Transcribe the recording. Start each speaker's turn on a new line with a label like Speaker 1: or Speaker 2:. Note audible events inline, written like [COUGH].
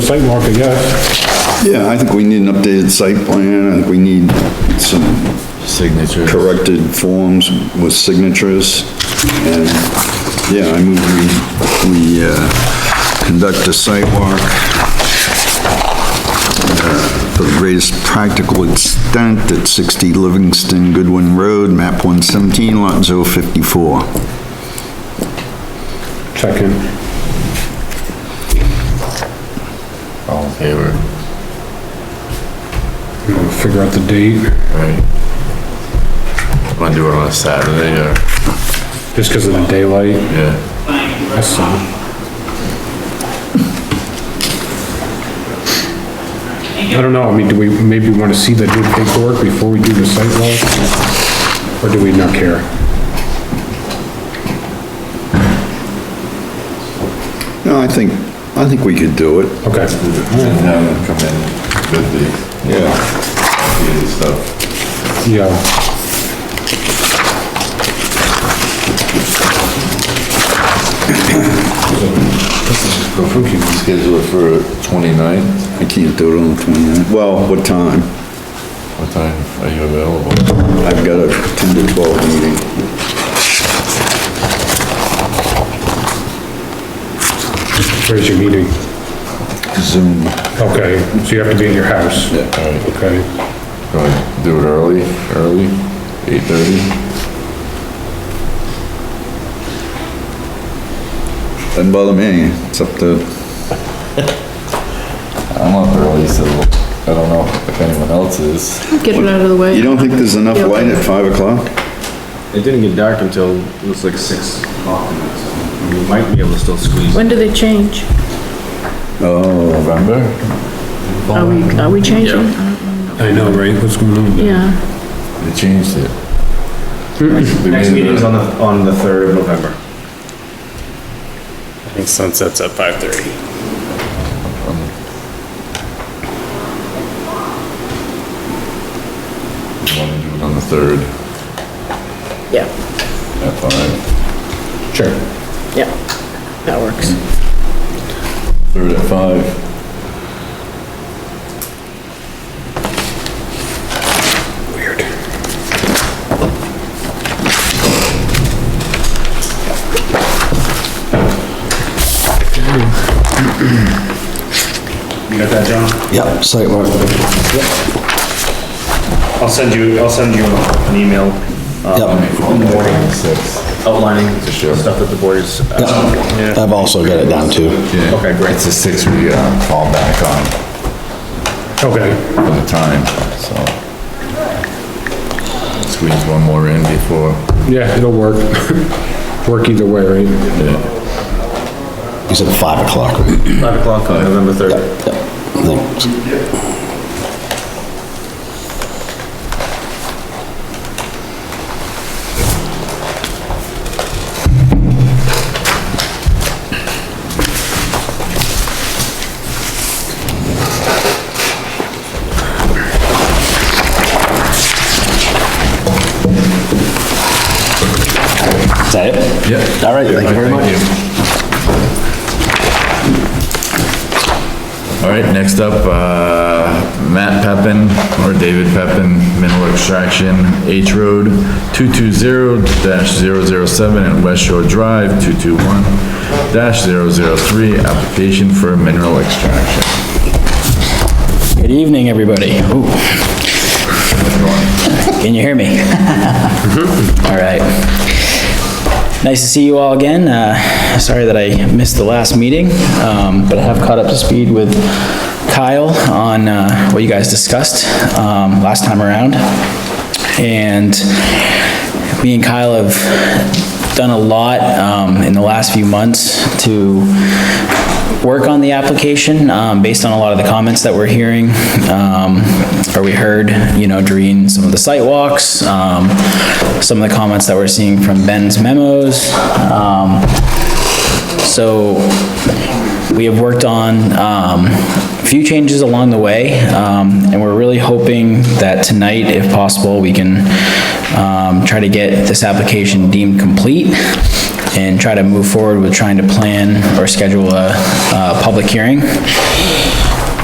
Speaker 1: site walk, I guess.
Speaker 2: Yeah, I think we need an updated site plan, I think we need some
Speaker 3: Signature.
Speaker 2: corrected forms with signatures, and, yeah, I move we, we, uh, conduct a site walk uh, to the greatest practical extent at 60 Livingston Goodwin Road, map 117, lot 054.
Speaker 1: Second.
Speaker 3: All in favor?
Speaker 1: We'll Figure out the date,
Speaker 3: Right. Want to do it on a Saturday or,
Speaker 1: just because of the daylight.
Speaker 3: yeah,
Speaker 1: That's all. I don't know, I mean, do we maybe want to see the new paperwork before we do the site walk? Or do we not care?
Speaker 2: No, I think, I think we could do it.
Speaker 1: Okay.
Speaker 4: And have them come in with the,
Speaker 2: Yeah.
Speaker 4: the stuff.
Speaker 1: Yeah,
Speaker 4: You can schedule it for twenty-ninth,
Speaker 2: I can't do it on the 29th. Well, what time?
Speaker 4: what time are you available?
Speaker 2: I've got a 10 to 12 meeting.
Speaker 1: where's your meeting?
Speaker 2: Zoom.
Speaker 1: Okay, so you have to be at your house? Oh,
Speaker 4: Alright,
Speaker 1: Okay,
Speaker 4: wanna do it early, early, eight-thirty?
Speaker 2: Doesn't bother me, it's up to,
Speaker 4: I'm up early, so I don't know if anyone else is.
Speaker 5: Get it out of the way.
Speaker 2: you don't think there's enough
Speaker 5: Yeah.
Speaker 2: light at 5 o'clock?
Speaker 6: It didn't get dark until it was like six o'clock. You might be able to still squeeze.
Speaker 5: When do they change?
Speaker 4: November?
Speaker 5: Are we, are we changing?
Speaker 1: I know, right, what's going on?
Speaker 5: Yeah,
Speaker 4: They changed it.
Speaker 6: Next meeting's on the, on the third of November.
Speaker 7: I think sunset's at five thirty.
Speaker 4: Wanna do it on the third
Speaker 5: yeah,
Speaker 4: at five.
Speaker 1: Sure.
Speaker 5: yeah, that works.
Speaker 4: Third at five.
Speaker 1: Weird.
Speaker 7: You got that, John?
Speaker 2: Yep, site
Speaker 7: I'll send you, I'll send you an email.
Speaker 6: uh,
Speaker 4: On the morning. Six.
Speaker 6: Outlining stuff that the board is, uh,
Speaker 8: I've also got it down to.
Speaker 4: Yeah.
Speaker 6: Okay, great.
Speaker 4: It's a six we, uh, fall back on
Speaker 1: Okay,
Speaker 4: for the time, so. Squeeze one more in before.
Speaker 1: yeah, it'll work. [LAUGHS] Work either way, right?
Speaker 8: You said five o'clock. right?
Speaker 6: five o'clock on November third.
Speaker 8: Yep. Thanks. Is that it?
Speaker 4: Yeah.
Speaker 8: All right, thank you very much.
Speaker 4: All right, next up, uh, Matt Peppin, or David Peppin, Mineral Extraction, H Road, 220-007 and West Shore Drive, 221-003, application for mineral extraction.
Speaker 9: Good evening, everybody. Ooh. Can you hear me? All right. Nice to see you all again. Uh, Sorry that I missed the last meeting, um, but I have caught up to speed with Kyle on uh, what you guys discussed um, last time around. And me and Kyle have done a lot um, in the last few months to work on the application, um, based on a lot of the comments that we're hearing, um, or we heard, you know, during some of the site walks, um, some of the comments that we're seeing from Ben's memos. Um, so we have worked on, um, a few changes along the way, um, and we're really hoping that tonight, if possible, we can, um, try to get this application deemed complete and try to move forward with trying to plan or schedule a, a public hearing